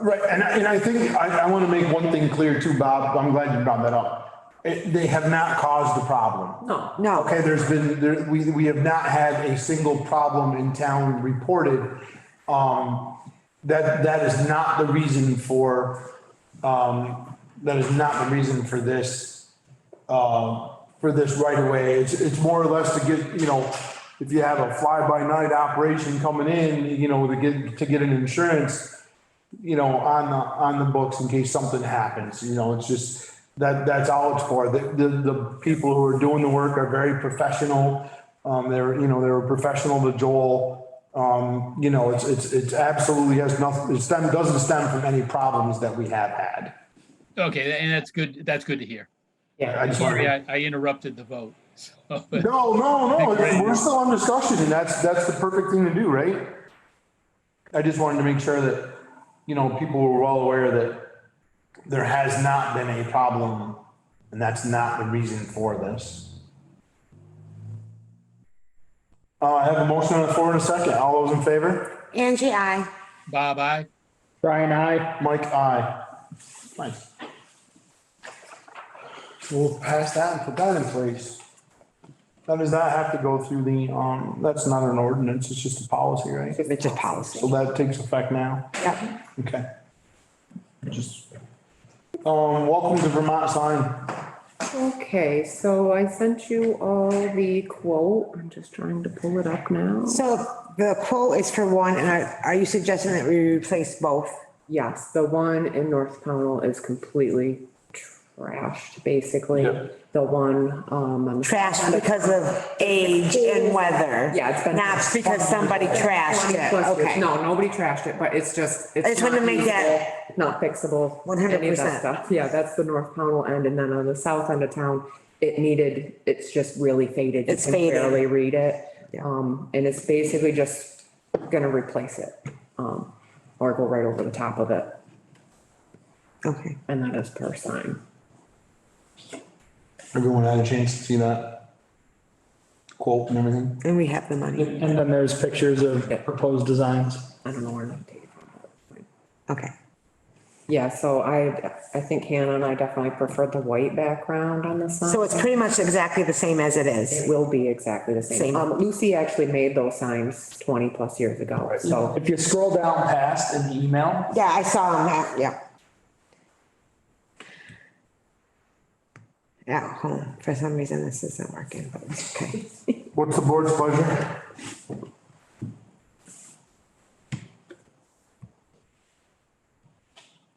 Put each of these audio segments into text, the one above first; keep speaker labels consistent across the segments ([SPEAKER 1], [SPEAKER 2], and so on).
[SPEAKER 1] Right, and, I- and I think, I, I want to make one thing clear too, Bob, I'm glad you brought that up. It- They have not caused the problem.
[SPEAKER 2] No.
[SPEAKER 3] No.
[SPEAKER 1] Okay, there's been, there, we, we have not had a single problem in town reported. Um, that, that is not the reason for, um, that is not the reason for this, um, for this right away. It's, it's more or less to get, you know, if you have a fly-by-night operation coming in, you know, to get, to get an insurance, you know, on the, on the books in case something happens, you know, it's just, that, that's all it's for. The, the, the people who are doing the work are very professional. Um, they're, you know, they're professional to Joel. Um, you know, it's, it's, it's absolutely has nothing, it stem, doesn't stem from any problems that we have had.
[SPEAKER 4] Okay, and that's good, that's good to hear.
[SPEAKER 1] I just wanted to-
[SPEAKER 4] Sorry, I, I interrupted the vote. so-
[SPEAKER 1] No, no, no, we're still on discussion and that's, that's the perfect thing to do, right? I just wanted to make sure that, you know, people were well aware that there has not been a problem and that's not the reason for this. Uh, I have a motion on the floor in a second. All those in favor?
[SPEAKER 3] Angie, I.
[SPEAKER 4] Bob, I,
[SPEAKER 5] Brian, I.
[SPEAKER 1] Mike, aye. Nice. We'll pass that and put that in place. That does not have to go through the, um, that's not an ordinance, it's just a policy, right?
[SPEAKER 3] It's a
[SPEAKER 1] So
[SPEAKER 3] policy.
[SPEAKER 1] that takes effect now,
[SPEAKER 3] Yep.
[SPEAKER 1] okay. Just, um, welcome to Vermont sign.
[SPEAKER 6] Okay, so I sent you all the quote. I'm just trying to pull it up now.
[SPEAKER 3] So the quote is for one, and are, are you suggesting that we replace both?
[SPEAKER 6] Yes, the one in North Pownell is completely trashed, basically. The one, um, on the-
[SPEAKER 3] Trash because of age and weather?
[SPEAKER 6] Yeah, it's been-
[SPEAKER 3] Not because somebody trashed it, okay.
[SPEAKER 6] No, nobody trashed it, but it's just.
[SPEAKER 3] I just
[SPEAKER 6] not
[SPEAKER 3] wanted to make that-
[SPEAKER 6] usable, Not fixable. any of that
[SPEAKER 3] 100%.
[SPEAKER 6] stuff. Yeah, that's the North Pownell end, and then on the south end of town, it needed, it's just really faded. You
[SPEAKER 3] It's
[SPEAKER 6] can
[SPEAKER 3] faded.
[SPEAKER 6] Barely read it, um, and it's basically just gonna replace it, um, or go right over the top of it,
[SPEAKER 3] Okay.
[SPEAKER 6] and that is per sign.
[SPEAKER 1] Everyone had a chance to see that quote and everything?
[SPEAKER 3] And we have the money,
[SPEAKER 5] And then there's pictures of proposed designs.
[SPEAKER 6] I don't know where that came from.
[SPEAKER 3] okay.
[SPEAKER 6] Yeah, so I, I think Hannah and I definitely prefer the white background on the sign.
[SPEAKER 3] So it's pretty much exactly the same as it
[SPEAKER 6] It
[SPEAKER 3] is.
[SPEAKER 6] will be exactly the same.
[SPEAKER 3] Same.
[SPEAKER 6] Um, Lucy actually made those signs twenty plus years ago, so,
[SPEAKER 5] If you scroll down past in the email,
[SPEAKER 3] Yeah, I saw them, out- yeah. At home, for some reason this isn't working, but it's okay.
[SPEAKER 1] What's the board's pleasure?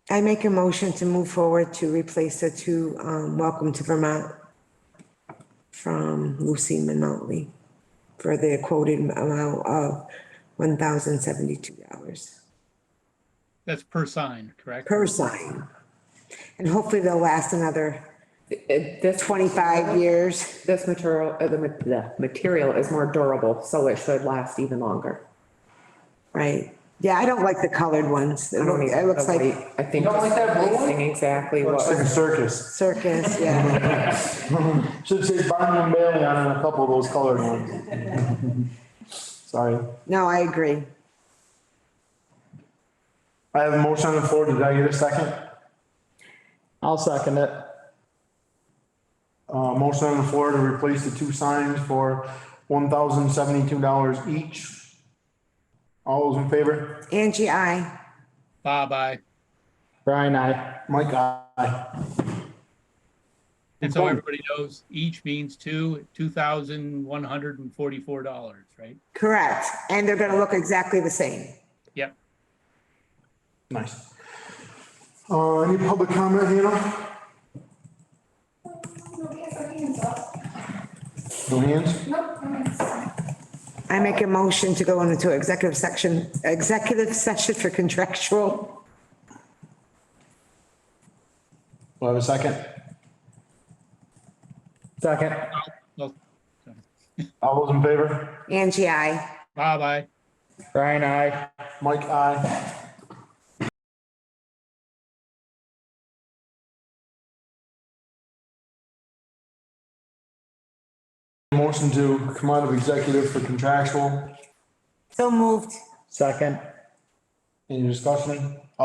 [SPEAKER 3] I make a motion to move forward to replace the two, um, Welcome to Vermont from Lucy Minotly for the quoted amount of one thousand seventy-two dollars
[SPEAKER 4] that's per sign, correct?
[SPEAKER 3] per sign. And hopefully they'll last another
[SPEAKER 6] it, this twenty,
[SPEAKER 3] twenty-five years.
[SPEAKER 6] this material, uh, the, ma- the material is more durable, so it should last even longer.
[SPEAKER 3] Right. Yeah, I don't like the colored ones. It
[SPEAKER 6] I don't
[SPEAKER 3] looks-
[SPEAKER 6] even-
[SPEAKER 3] it looks like
[SPEAKER 6] I think.
[SPEAKER 5] You don't like that blue one?
[SPEAKER 6] Seeing Exactly
[SPEAKER 1] Looks like a
[SPEAKER 6] what,
[SPEAKER 1] circus.
[SPEAKER 3] circus, yeah.
[SPEAKER 1] Should say Barnum and Bailey on a couple of those colored ones. Sorry.
[SPEAKER 3] No, I agree.
[SPEAKER 1] I have a motion on the floor. Did I get a second?
[SPEAKER 5] I'll second it.
[SPEAKER 1] Uh, motion on the floor to replace the two signs for one thousand seventy-two dollars each. All those in favor?
[SPEAKER 3] Angie, I.
[SPEAKER 4] Bob, I.
[SPEAKER 5] Brian, I.
[SPEAKER 1] Mike, aye.
[SPEAKER 4] And so everybody knows each means two, two thousand one hundred and forty-four dollars, right?
[SPEAKER 3] Correct. And they're gonna look exactly the same.
[SPEAKER 4] Yep.
[SPEAKER 1] Nice. Uh, any public comment, Hannah?
[SPEAKER 7] Nobody has their hands up.
[SPEAKER 1] No hands?
[SPEAKER 7] Nope, no hands.
[SPEAKER 3] I make a motion to go into executive section, executive session for contractual.
[SPEAKER 1] Do I have a second?
[SPEAKER 5] Second.
[SPEAKER 4] Well,
[SPEAKER 1] All those in favor?
[SPEAKER 3] Angie, I.
[SPEAKER 4] Bob, I.
[SPEAKER 5] Brian, I.
[SPEAKER 1] Mike, aye. Motion to come out of executive for contractual.
[SPEAKER 3] So moved.
[SPEAKER 5] Second.
[SPEAKER 1] Any discussion?